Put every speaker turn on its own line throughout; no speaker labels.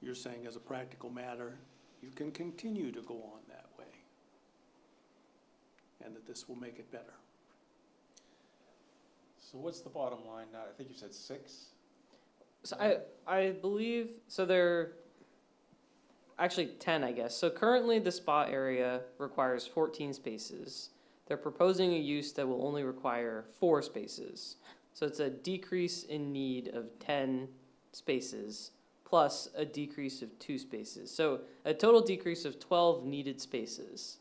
you're saying as a practical matter, you can continue to go on that way. And that this will make it better.
So what's the bottom line now? I think you said six?
So I, I believe, so they're actually ten, I guess. So currently the spa area requires fourteen spaces. They're proposing a use that will only require four spaces. So it's a decrease in need of ten spaces plus a decrease of two spaces. So a total decrease of twelve needed spaces.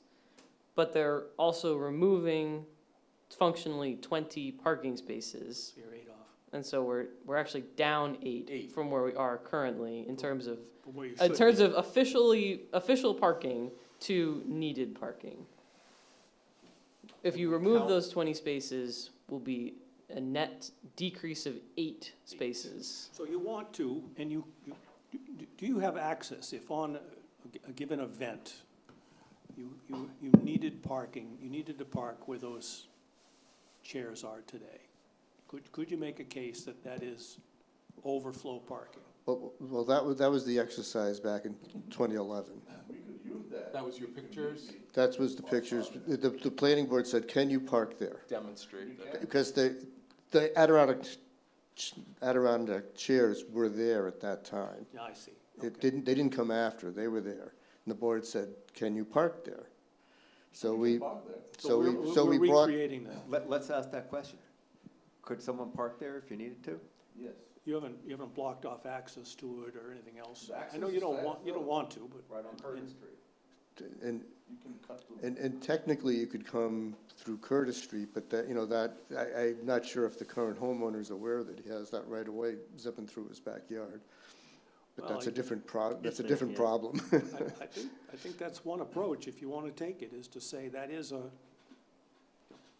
But they're also removing functionally twenty parking spaces.
So you're eight off
And so we're, we're actually down
Eight.
eight from where we are currently in terms of,
from where you should
in
be.
terms of officially, official parking to needed parking. If you remove
How-
those twenty spaces, will be a net decrease of eight spaces.
So you want to, and you, you- do- do you have access if on a g- a given event, you, you, you needed parking, you needed to park where those chairs are today? Could, could you make a case that that is overflow parking?
Well, well, that was, that was the exercise back in 2011.
That was your pictures?
That was the pictures, the, the planning board said, can you park there?
Demonstrate that.
Because the, the Adirondack, ch- Adirondack chairs were there at that time.
Yeah, I see.
It
Okay.
didn't, they didn't come after, they were there. And the board said, can you park there? So we, so
we're-
we, so
we're
we brought,
recreating that.
Let, let's ask that question. Could someone park there if you needed to?
You haven't, you haven't blocked off access to it or anything else. I know you don't want, you don't want to, but. Right on Curtis Street.
and, and, and technically you could come through Curtis Street, but that, you know, that, I, I'm not sure if the current homeowner is aware that he has that right away zipping through his backyard. But
Well,
that's a
I-
different pro, that's a
there,
different
yeah.
problem.
I, I think, I think that's one approach, if you want to take it, is to say that is a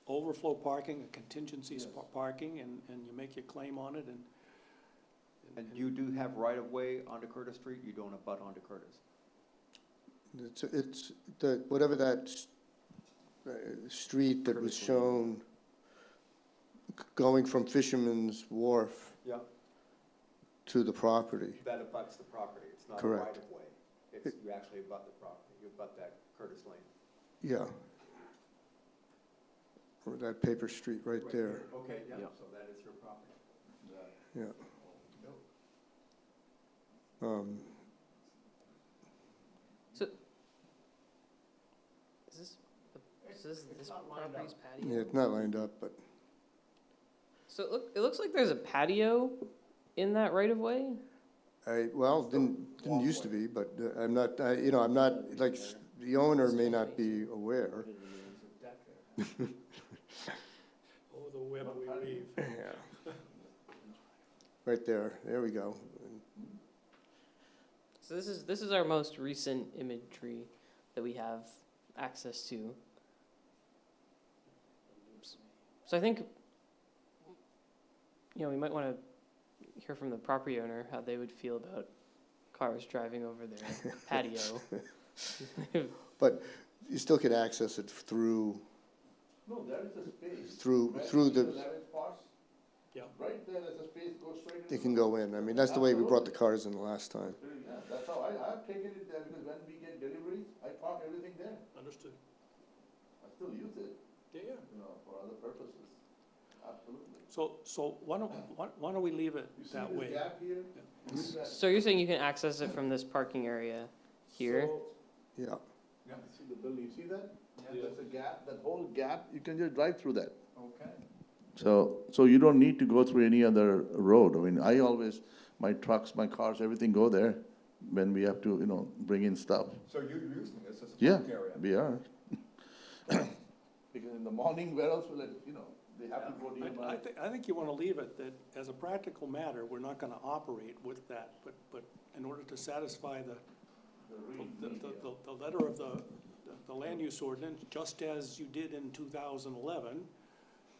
overflow parking, a contingency spa- parking, and, and you make your claim on it and.
And you do have right-of-way onto Curtis Street, you don't abut onto Curtis.
It's, it's, the, whatever that s- uh, street that was
Curtis Lane.
shown g- going from Fisherman's Wharf
Yeah.
to the property,
That abuts the property, it's not
Correct.
right-of-way. It's, you actually abut the property, you abut that Curtis Lane.
yeah. Or that paper street right there,
Okay, yeah,
Yeah.
so that is your property.
yeah. Um,
Is this, is this, this property's
yeah,
patio?
it's not lined up, but
So it look, it looks like there's a patio in that right of way?
I, well, didn't, didn't used to be, but uh, I'm not, I, you know, I'm not, like, s- the owner may not be aware.
Oh, the web we weave.
Yeah. Right there, there we go.
So this is this is our most recent imagery that we have access to. So I think you know, we might want to hear from the property owner how they would feel about cars driving over their patio.
You still could access it through,
No, that is a space.
through, through the,
Eleven spots.
Yeah.
Right there, there's a space, goes straight into.
they can go in. I mean, that's the way we brought the cars in last time.
Yeah, That's how I, I've taken it there, because when we get deliveries, I park everything there,
Understood.
I still use it,
Yeah, yeah.
you know, for other purposes, absolutely.
So, so why don't, why, why don't we leave it
You see
that
this
way?
gap here? Use that.
so you're saying you can access it from this parking area here?
So,
Yeah,
Yeah, you see the building, you see that? There's a gap, that whole gap, you can just drive through that.
Okay.
So, so you don't need to go through any other road. I mean, I always, my trucks, my cars, everything go there when we have to, you know, bring in stuff.
So you're using this as
Yeah, we are. Because in the morning, where else will it, you know, they have to go to
I, I think, I think you want to leave it that as a practical matter, we're not going to operate with that, but, but in order to satisfy the the, the, the- the letter of the, the land use ordinance, just as you did in two thousand eleven,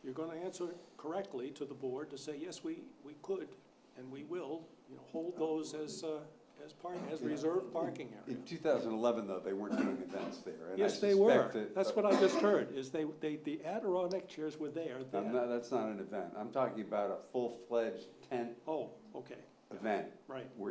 you're gonna answer correctly to the board to say, yes, we, we could, and we will, you know, hold those as, uh, as park, as reserved parking area.
In two thousand eleven, though, they weren't doing events there, and I
Yes, they
suspect
were,
that. uh,
that's what I just heard, is they, they, the Adirondack chairs were there
I'm
then.
not- that's not an event. I'm talking about a full-fledged tent
Oh, okay,
event
right.
where